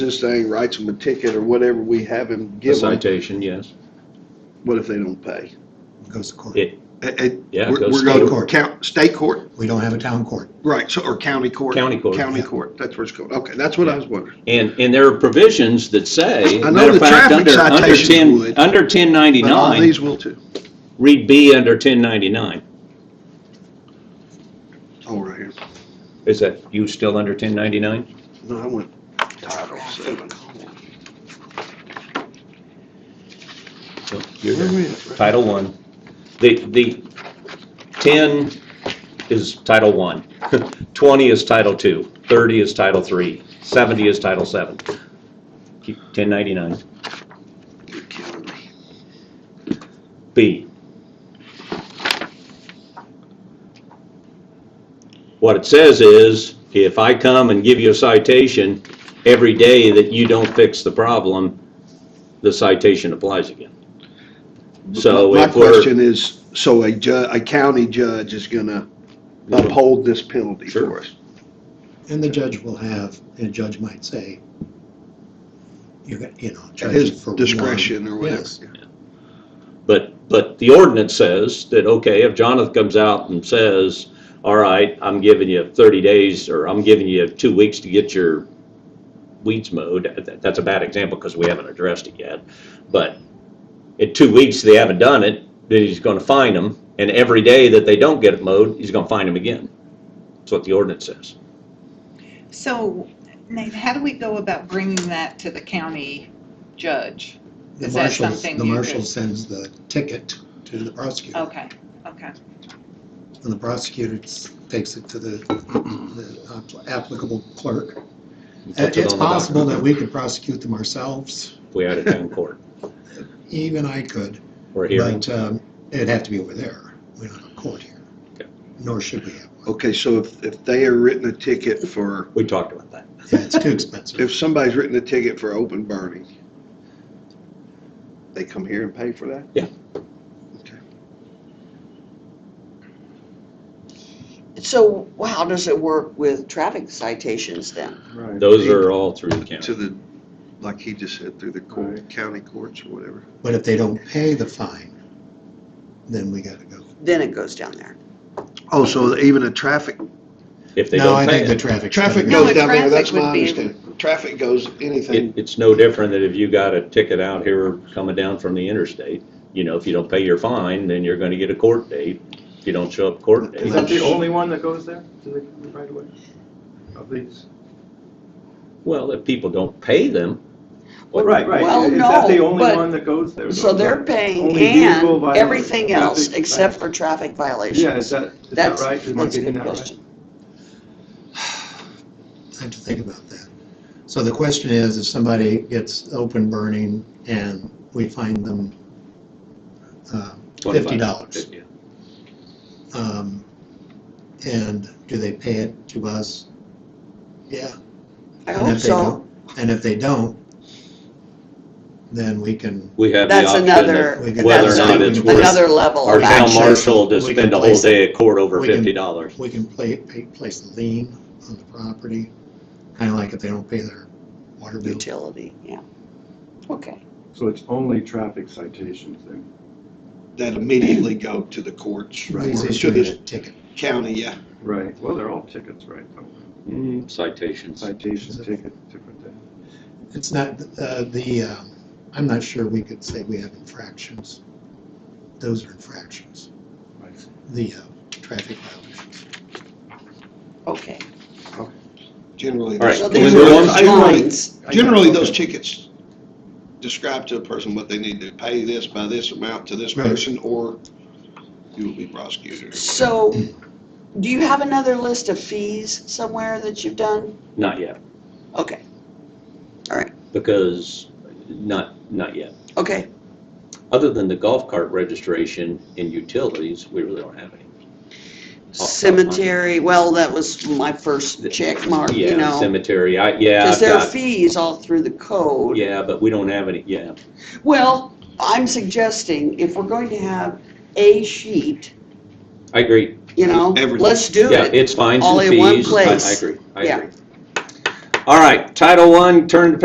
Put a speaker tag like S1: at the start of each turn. S1: this thing, writes them a ticket or whatever we have him
S2: A
S1: give them,
S2: citation, yes.
S1: what if they don't pay?
S3: goes to court.
S2: It,
S1: Eh, eh,
S2: Yeah,
S1: we're-
S2: go
S1: We're
S2: state
S1: going to
S3: court.
S1: count, state court,
S3: We don't have a town court.
S1: right, so, or county court?
S2: County court.
S1: County court, that's where it's going, okay, that's what I was wondering.
S2: and, and there are provisions that say,
S1: I know
S2: matter
S1: the
S2: of fact,
S1: traffic
S2: under, under
S1: citation
S2: ten,
S1: would,
S2: under ten
S1: But all
S2: ninety-nine,
S1: these will too,
S2: read B under ten ninety-nine.
S1: oh, right here,
S2: Is that, you still under ten ninety-nine?
S1: no, I went title seven.
S2: You're
S1: Where
S2: there.
S1: we at?
S2: Title One. The, the 10 is Title One. 20 is Title Two. 30 is Title Three. 70 is Title Seven. 1099.
S1: You're killing me.
S2: B. What it says is, if I come and give you a citation every day that you don't fix the problem, the citation applies again. So
S1: My
S2: if we're.
S1: question is, so a ju, a county judge is gonna uphold this penalty
S2: Sure.
S1: for us?
S3: And the judge will have, and a judge might say, you're, gonna- you know,
S1: At
S3: charge it
S1: his
S3: for one.
S1: discretion or whatever.
S3: Yes.
S2: But, but the ordinance says that, okay, if Jonathan comes out and says, all right, I'm giving you 30 days, or I'm giving you two weeks to get your weeds mowed, that- that's a bad example because we haven't addressed it yet, but in two weeks, they haven't done it, then he's going to fine them, and every day that they don't get it mowed, he's going to fine them again. That's what the ordinance says.
S4: So, Nate, how do we go about bringing that to the county judge?
S3: The
S4: Is that
S3: marshal-
S4: something
S3: The
S4: you
S3: marshal
S4: could- Oh.
S3: sends the ticket to the prosecutor,
S4: Okay, okay,
S3: and the prosecutor s- takes it to the the app- applicable clerk.
S2: Puts it
S3: It's
S2: on the
S3: possible that
S2: document.
S3: we could prosecute them ourselves,
S2: We had it down in court,
S3: even I could,
S2: or here,
S3: but um, it'd have to be over there. We don't have a court here,
S2: Okay.
S3: nor should we have.
S1: Okay, so if, if they are written a ticket for,
S2: we talked about that.
S3: Yeah, it's too expensive.
S1: if somebody's written a ticket for open burning, they come here and pay for that?
S5: So how does it work with traffic citations then?
S1: Right.
S2: Those are all through the county.
S1: To the, like he just said, through the court, county courts or whatever.
S3: But if they don't pay the fine, then we gotta go.
S5: Then it goes down there.
S1: Oh, so even a traffic,
S2: If they
S3: No, I
S2: don't pay
S3: think the
S2: it,
S3: traffic.
S1: traffic
S4: No,
S1: goes
S4: a
S1: down there, that's
S4: traffic would
S1: my
S4: be-
S1: understanding. Traffic goes, anything,
S2: It, it's no different than if you got a ticket out here coming down from the interstate. You know, if you don't pay your fine, then you're gonna get a court date. If you don't show up court
S6: Is
S2: date,
S6: that the only one that goes there, to the right away? Of these?
S2: well, if people don't pay them, Well,
S6: Right, right.
S5: well,
S6: Is that the
S5: no,
S6: only
S5: but-
S6: one that goes there?
S5: So they're paying
S6: Only vehicle
S5: and
S6: violation.
S5: everything else
S6: Traffic
S5: except for traffic
S6: Yeah,
S5: violations.
S6: is that, is that
S5: That's,
S6: right? Am I
S5: that's a
S6: getting
S5: good
S6: that right?
S5: question.
S3: I have to think about that. So the question is, if somebody gets open burning and we find them uh, fifty dollars,
S2: yeah.
S3: um, and do they pay it to us? Yeah.
S5: I
S3: And
S5: hope
S3: if they
S5: so.
S3: don't, and if they don't, then we can,
S2: we have the
S5: That's
S2: option
S5: another,
S3: we
S2: of
S3: can-
S2: whether or
S5: that's
S2: not it's worth
S5: another level
S2: our
S5: of
S2: town
S3: actually-
S5: action.
S2: marshal to
S3: we can
S2: spend a whole
S3: place-
S2: day at court over
S3: we can-
S2: fifty dollars.
S3: we can play, pay, place a lien on the property, kind of like if they don't pay their water bill.
S5: Utility, yeah. Okay.
S6: So it's only traffic citations then?
S1: that immediately go to the courts.
S3: He's
S1: or To
S3: issuing a
S1: the
S3: ticket.
S1: county, yeah.
S6: Right, Mm-hmm. well, they're all tickets, right? though.
S2: Citations.
S6: Citation, ticket, different thing.
S3: It's not, uh, the, uh, I'm not sure we could say we have infractions. Those are infractions,
S6: Right.
S3: the uh, traffic violations.
S5: Okay.
S1: Generally,
S2: All right,
S5: So
S1: those-
S2: can we
S5: these
S2: move
S5: are
S2: on?
S1: I really-
S5: fines.
S1: generally, those tickets describe to a person what they need to pay this by this amount to this
S3: Right.
S1: person, or you will be prosecuted.
S5: So do you have another list of fees somewhere that you've done?
S2: Not yet,
S5: Okay,
S2: because, not, not yet.
S5: okay.
S2: Other than the golf cart registration and utilities, we really don't have any. Oh,
S5: Cemetery, well, that was my first check mark, you
S2: Yeah,
S5: know.
S2: cemetery, I, yeah.
S5: Because
S2: I've
S5: there are
S2: got-
S5: fees all through the code.
S2: Yeah, but we don't have any, yeah.
S5: Well, I'm suggesting if we're going to have a sheet,
S2: I agree.
S5: you know,
S1: Everything.
S5: let's do
S2: Yeah,
S5: it.
S2: it's fines
S5: All
S2: and
S5: in one
S2: fees. I- I
S5: place.
S2: agree, I
S5: Yeah.
S2: agree. All right, Title One. turn to